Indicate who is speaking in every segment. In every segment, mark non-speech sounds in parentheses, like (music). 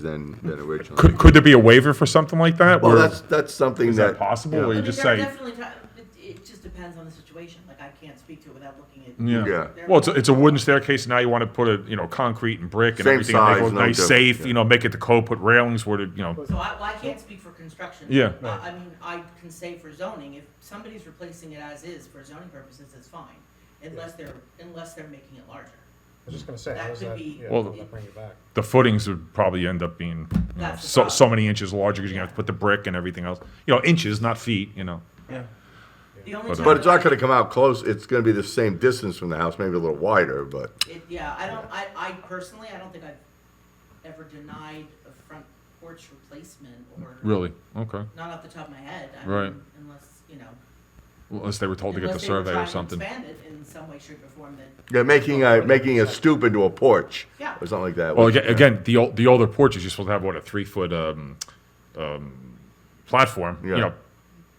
Speaker 1: than, than originally.
Speaker 2: Could, could there be a waiver for something like that?
Speaker 1: Well,
Speaker 2: where-
Speaker 1: that's, that's something
Speaker 2: Is that
Speaker 1: that,
Speaker 2: possible, or you
Speaker 3: mean,
Speaker 2: just
Speaker 3: there are
Speaker 2: say,
Speaker 3: Definitely, ti- it, it just depends on the situation, like I can't speak to it without looking at.
Speaker 2: yeah.
Speaker 1: Yeah.
Speaker 2: Well, it's, a- it's a wooden staircase, now you want to put a, you know, concrete and brick and
Speaker 1: Same
Speaker 2: everything, and make it
Speaker 1: size,
Speaker 2: look
Speaker 1: no
Speaker 2: nice,
Speaker 1: difference,
Speaker 2: safe,
Speaker 1: yeah.
Speaker 2: you know, make it the code, put railings where, the you know,
Speaker 3: So I, well, I can't speak for construction.
Speaker 2: Yeah.
Speaker 3: I, I mean, I can say for zoning, if somebody's replacing it as is for zoning purposes, it's fine, unless they're, unless they're making it larger.
Speaker 4: I was just gonna say,
Speaker 3: That
Speaker 4: how's
Speaker 3: could
Speaker 4: that,
Speaker 3: be-
Speaker 4: yeah,
Speaker 2: Well-
Speaker 4: how's that bring it back?
Speaker 2: the footings would probably end up being, you know,
Speaker 3: That's the
Speaker 2: so, so
Speaker 3: problem.
Speaker 2: many inches larger, because you have to put the brick and everything else. You know, inches, not feet, you know.
Speaker 3: The only
Speaker 2: But-
Speaker 3: time
Speaker 1: but it's not
Speaker 3: I-
Speaker 1: gonna come out close, it's gonna be the same distance from the house, maybe a little wider, but.
Speaker 3: It, yeah, I don't, I, I personally, I don't think I've ever denied a front porch replacement or.
Speaker 2: Really? Okay.
Speaker 3: Not off the top of my head. I
Speaker 2: Right.
Speaker 3: mean, Unless, you know.
Speaker 2: Unless they were told to get the
Speaker 3: unless they were
Speaker 2: survey
Speaker 3: trying
Speaker 2: or
Speaker 3: to
Speaker 2: something.
Speaker 3: Expand it in some way, shape or form that,
Speaker 1: Yeah, making a, making a stoop into a porch.
Speaker 3: Yeah.
Speaker 1: Or something like that.
Speaker 2: Well,
Speaker 1: which-
Speaker 2: again, again the old, the older porches, you're supposed to have what a three foot um, um, platform. You
Speaker 1: Yeah.
Speaker 2: know,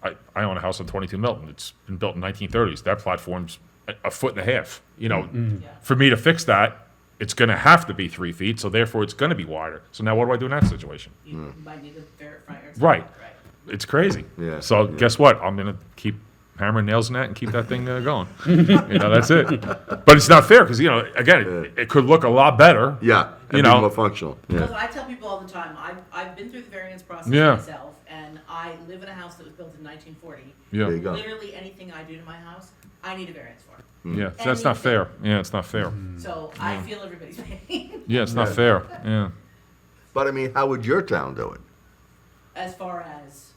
Speaker 2: I, I own a house on 22 Milton. It's been built in 1930s. That platform's a, a foot and a half. You know,
Speaker 1: Mm-hmm.
Speaker 3: Yeah.
Speaker 2: for me to fix that, it's going to have to be three feet. So therefore, it's going to be wider. So now, what do I do in that situation?
Speaker 3: you
Speaker 1: Mm.
Speaker 3: might need a fair front yard.
Speaker 2: Right.
Speaker 3: setback, Right.
Speaker 2: It's crazy.
Speaker 1: Yeah,
Speaker 2: So
Speaker 1: yeah.
Speaker 2: guess what? I'm gonna keep hammering nails in that and keep that thing
Speaker 1: (laughs)
Speaker 2: uh, going. you know, that's it. But it's not fair because you know, again, it, it could look a lot better.
Speaker 1: Yeah,
Speaker 2: You
Speaker 1: and be
Speaker 2: know.
Speaker 1: more functional,
Speaker 3: Because
Speaker 1: yeah.
Speaker 3: I tell people all the time, I've, I've been through the variance process
Speaker 2: Yeah.
Speaker 3: myself, and I live in a house that was built in 1940.
Speaker 2: Yeah.
Speaker 1: There you go.
Speaker 3: Literally anything I do to my house, I need a variance for.
Speaker 1: Mm.
Speaker 2: Yeah. So that's not fair. Yeah, it's not fair.
Speaker 1: Mm-hmm.
Speaker 3: So I feel everybody's (laughs) pain
Speaker 2: Yeah, it's not fair. Yeah.
Speaker 1: But I mean, how would your town do it?
Speaker 3: as far as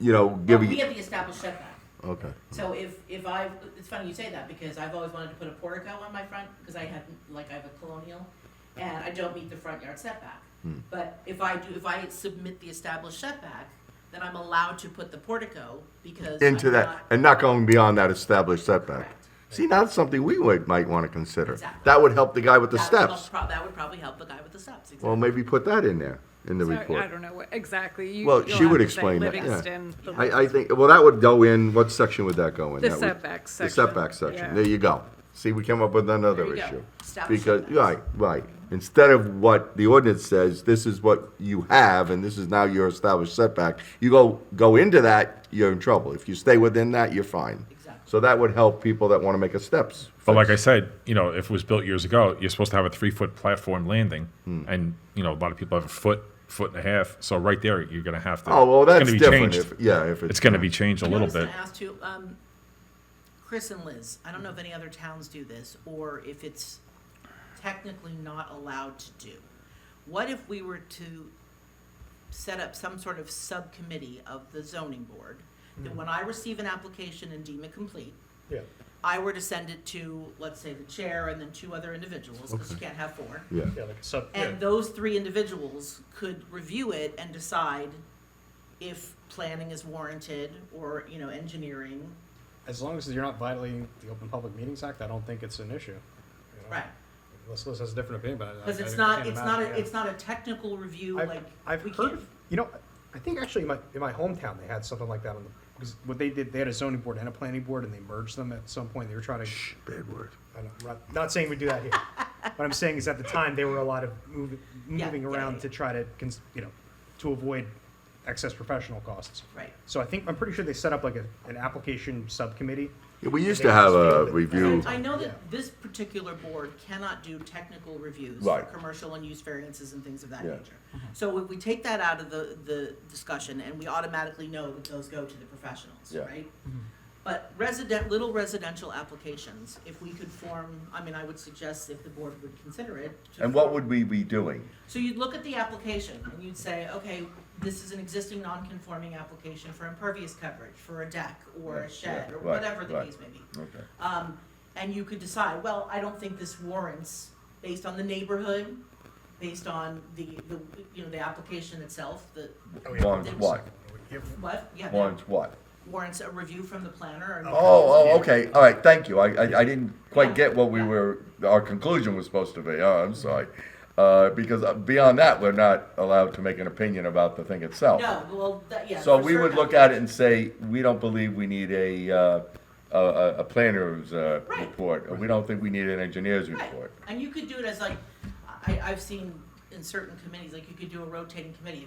Speaker 1: You know,
Speaker 3: well,
Speaker 1: giving,
Speaker 3: we have the established setback.
Speaker 1: okay.
Speaker 3: So if if I it's funny you say that because I've always wanted to put a portico on my front because I had like I have a colonial, and I don't meet the front yard setback.
Speaker 1: Hmm.
Speaker 3: But if I do if I submit the established setback, then I'm allowed to put the portico because
Speaker 1: Into
Speaker 3: I'm
Speaker 1: that,
Speaker 3: not-
Speaker 1: and not going beyond that established setback.
Speaker 3: Correct.
Speaker 1: See, now that's something we would, might wanna consider.
Speaker 3: Exactly.
Speaker 1: That would help the guy with the
Speaker 3: that would help
Speaker 1: steps.
Speaker 3: prob- that would probably help the guy with the steps. Exactly.
Speaker 1: Well, maybe put that in there, in the
Speaker 5: Sorry,
Speaker 1: report.
Speaker 5: I don't know what, exactly. You-
Speaker 1: Well,
Speaker 5: you'll
Speaker 1: she would
Speaker 5: have to say
Speaker 1: explain that, yeah.
Speaker 5: Livingston, the-
Speaker 1: I, I think, well, that would go in, what section would that go in?
Speaker 5: The
Speaker 1: That would-
Speaker 5: setback
Speaker 1: The
Speaker 5: section,
Speaker 1: setback section,
Speaker 5: yeah.
Speaker 1: there you go. See, we came up with another
Speaker 3: There you go.
Speaker 1: issue.
Speaker 3: Stop
Speaker 1: Because,
Speaker 3: setbacks.
Speaker 1: right, right. Instead of what the ordinance says, this is what you have, and this is now your established setback, you go, go into that, you're in trouble. If you stay within that, you're fine.
Speaker 3: Exactly.
Speaker 1: So that would help people that wanna make a steps.
Speaker 2: But like I said, you know, if it was built years ago, you're supposed to have a three foot platform landing,
Speaker 1: Hmm.
Speaker 2: and you know, a lot of people have a foot, foot and a half. So right there, you're gonna have to.
Speaker 1: Oh, well,
Speaker 2: it's
Speaker 1: that's
Speaker 2: gonna be
Speaker 1: different,
Speaker 2: changed.
Speaker 1: if, yeah, if it's.
Speaker 2: It's gonna be changed a little bit.
Speaker 3: I was going to ask too, um, Chris and Liz, I don't know if any other towns do this, or if it's technically not allowed to do. What if we were to set up some sort of subcommittee of the zoning board? That when I receive an application and deem it complete,
Speaker 4: Yeah,
Speaker 3: I were to send it to, let's say, the chair and then two other individuals, because you can't have four.
Speaker 1: Yeah,
Speaker 4: yeah, like a sub, yeah.
Speaker 3: And those three individuals could review it and decide if planning is warranted or, you know, engineering,
Speaker 4: as long as you're not violating the Open Public Meetings Act, I don't think it's an issue. you know?
Speaker 3: right?
Speaker 4: Unless Liz has a different opinion, but I. I-
Speaker 3: Because
Speaker 4: I
Speaker 3: it's
Speaker 4: can't
Speaker 3: not, it's not,
Speaker 4: imagine,
Speaker 3: a
Speaker 4: yeah.
Speaker 3: it's not a technical review,
Speaker 4: I've-
Speaker 3: like,
Speaker 4: I've
Speaker 3: we
Speaker 4: heard,
Speaker 3: can't,
Speaker 4: of- you know, I think actually in my, in my hometown, they had something like that on the, because what they did, they had a zoning board and a planning board and they merged them at some point. They were trying to,
Speaker 1: bad word.
Speaker 4: I know, I'm not- not saying we do
Speaker 3: (laughs)
Speaker 4: that here. What I'm saying is at the time, they were a lot of moving,
Speaker 3: Yeah,
Speaker 4: moving
Speaker 3: yeah,
Speaker 4: around
Speaker 3: yeah.
Speaker 4: to try to, cons- you know, to avoid excess professional costs.
Speaker 3: right.
Speaker 4: So I think, I'm pretty sure they set up like a, an application subcommittee.
Speaker 1: Yeah, We used to have a review.
Speaker 3: I know that
Speaker 4: Yeah.
Speaker 3: this particular board cannot do technical reviews for
Speaker 1: Right.
Speaker 3: commercial and use variances and things of that
Speaker 1: Yeah.
Speaker 3: nature. So if we take that out of the, the discussion, and we automatically know that those go to the professionals,
Speaker 1: Yeah.
Speaker 3: right? But resident, little residential applications, if we could form, I mean, I would suggest if the board would consider it. to
Speaker 1: And what
Speaker 3: form-
Speaker 1: would we be doing?
Speaker 3: So you'd look at the application and you'd say, okay, this is an existing non-conforming application for impervious coverage, for a deck or a
Speaker 1: Right,
Speaker 3: shed,
Speaker 1: yeah,
Speaker 3: or
Speaker 1: right,
Speaker 3: whatever the
Speaker 1: right.
Speaker 3: case may be.
Speaker 1: Okay.
Speaker 3: Um, and you could decide, well, I don't think this warrants, based on the neighborhood, based on the, the, you know, the application itself, the,
Speaker 1: Warrants what?
Speaker 3: what, yeah, that
Speaker 1: Warrants what?
Speaker 3: warrants a review from the planner and.
Speaker 1: Oh, oh, okay, all right, thank you, I, I, I didn't quite get what we were, our conclusion was supposed to be, oh, I'm sorry. Uh, because beyond that, we're not allowed to make an opinion about the thing itself.
Speaker 3: No, well, that, yeah.
Speaker 1: So
Speaker 3: for
Speaker 1: we would
Speaker 3: certain
Speaker 1: look at it and say, we don't believe we need a, uh, a, a- a planner's, uh,
Speaker 3: Right.
Speaker 1: report, or we don't think we need an engineer's
Speaker 3: Right,
Speaker 1: report.
Speaker 3: and you could do it as like, I, I've seen in certain committees, like you could do a rotating committee.